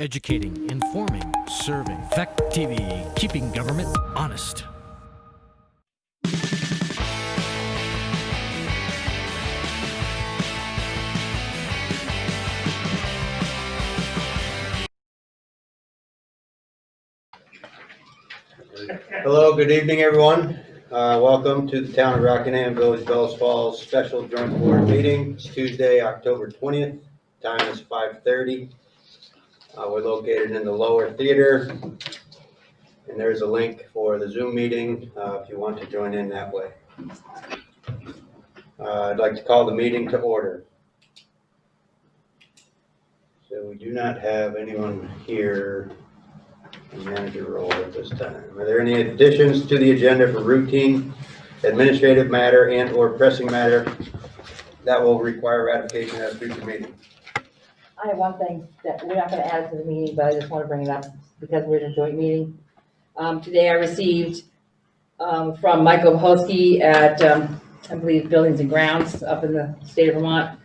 educating, informing, serving. Fact TV, keeping government honest. Hello, good evening, everyone. Uh, Welcome to the Town of Rockingham Village Bells Falls Special Joint Board Meeting. It's Tuesday, October 20th. Time is 5:30. Uh, We're located in the lower theater. And there's a link for the Zoom meeting uh, if you want to join in that way. Uh, I'd like to call the meeting to order. So we do not have anyone here and manager role at this time. Are there any additions to the agenda for routine administrative matter and/or pressing matter that will require ratification at a future meeting? I have one thing that we're not gonna add to the meeting, but I just wanna bring it up because we're in a joint meeting. Um, today I received, um, from Michael Bohosky at, um, I believe Buildings and Grounds up in the state of Vermont,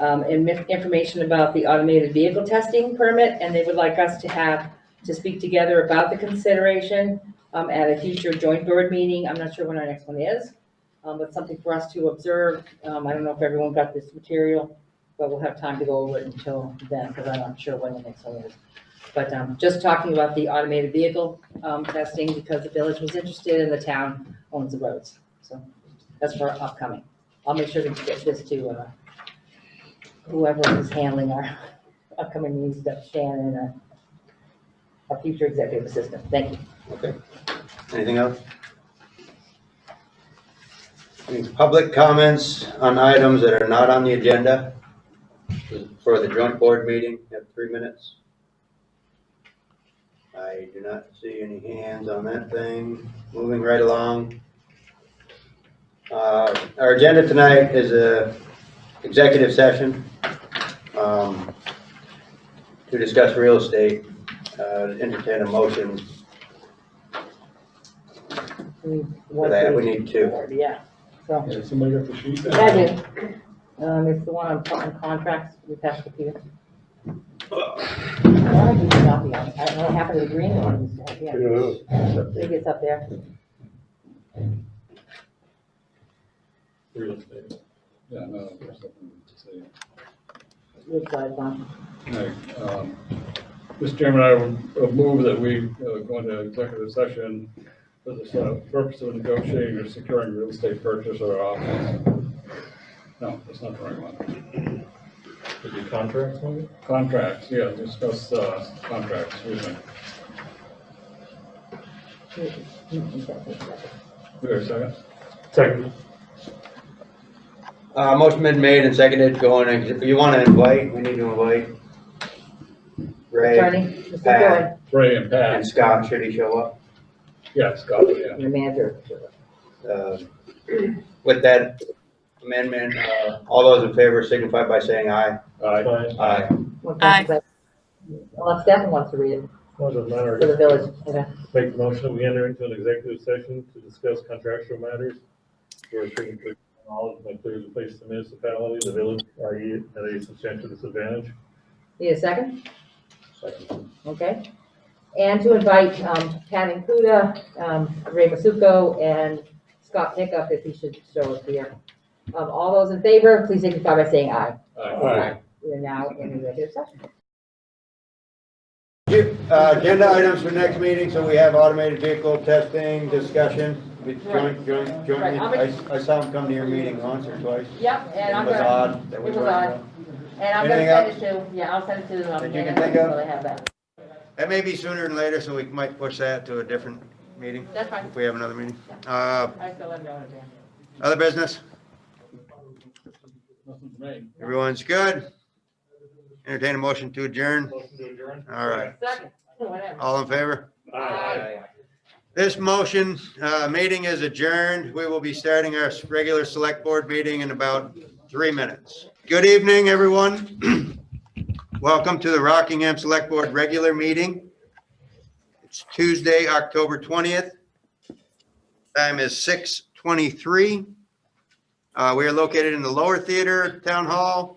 um, and mi- information about the automated vehicle testing permit, and they would like us to have, to speak together about the consideration, um, at a future joint board meeting. I'm not sure when our next one is, um, but something for us to observe. Um, I don't know if everyone got this material but we'll have time to go over it until then, because I'm not sure when the next one is. But um, just talking about the automated vehicle um, testing, because the village was interested and the town owns the roads. So that's for upcoming. I'll make sure to get this to uh, whoever is handling our upcoming meetings, Deb Shannon, uh, our future executive assistant. Thank you. Okay. Anything else? Any public comments on items that are not on the agenda for the joint board meeting? You have three minutes. I do not see any hands on that thing. Moving right along. Uh, Our agenda tonight is a executive session um, to discuss real estate. Uh, Entertain a motion We for that, we need two. Yeah, so. Yeah, somebody got the sheet? Yeah, I do. Um, it's the one on on contracts, we passed the Peter. Why did you copy on it? I don't know what happened to the green one, yeah, Yeah, I think it's up there. real estate. Yeah, no, there's nothing to say. Good size one. Right, um, Mr. Chairman, I would- would move that we uh, go into executive session for the sort of purpose of negotiating or securing real estate purchase or office. No, that's not the right one. Did you contract maybe? Contracts, yeah, discuss uh, contracts, excuse me. Wait a second. Second. Uh, motion been made and seconded, going, ex- you wanna invite, we need to invite Ray Attorney, Mr. Doran, Ray and Pat, and Scott, should he show up? yeah, Scott, yeah. your manager. Uh, With that amendment, uh, all those in favor signify by saying aye. Aye. Aye. Aye. Well, Stefan wants to read it for Doesn't matter. the village, okay. Make the motion, we enter into an executive session to discuss contractual matters. We're treating knowledge by clear to place the municipality, the village, i.e. at a substantial disadvantage. Need a second? Okay. And to invite um, Pat Includa, um, Ray Masuko, and Scott Pickup if he should show up here. Um, All those in favor, please signify by saying aye. We are now in executive session. Uh, agenda items for next meeting, so we have automated vehicle testing, discussion, We joint, joint, joint, Right, I'm a- I, I saw him come to your meeting once or twice. Yep, and I'm It was gonna, odd that we it was weren't- odd. and I'm gonna Anything send it to, yeah, I'll send it to them. That you can and think of? so they have that. That may be sooner than later, so we might push that to a different meeting. That's fine. If we have another meeting. Uh, I still have no idea. other business? Nothing for me. Everyone's good? Entertain a motion to adjourn? Motion to adjourn? All right. Second, whatever. All in favor? Aye. This motion, uh, meeting is adjourned. We will be starting our regular select board meeting in about three minutes. Good evening, everyone. Welcome to the Rockingham Select Board Regular Meeting. It's Tuesday, October 20th. Time is 6:23. Uh, We are located in the Lower Theater Town Hall.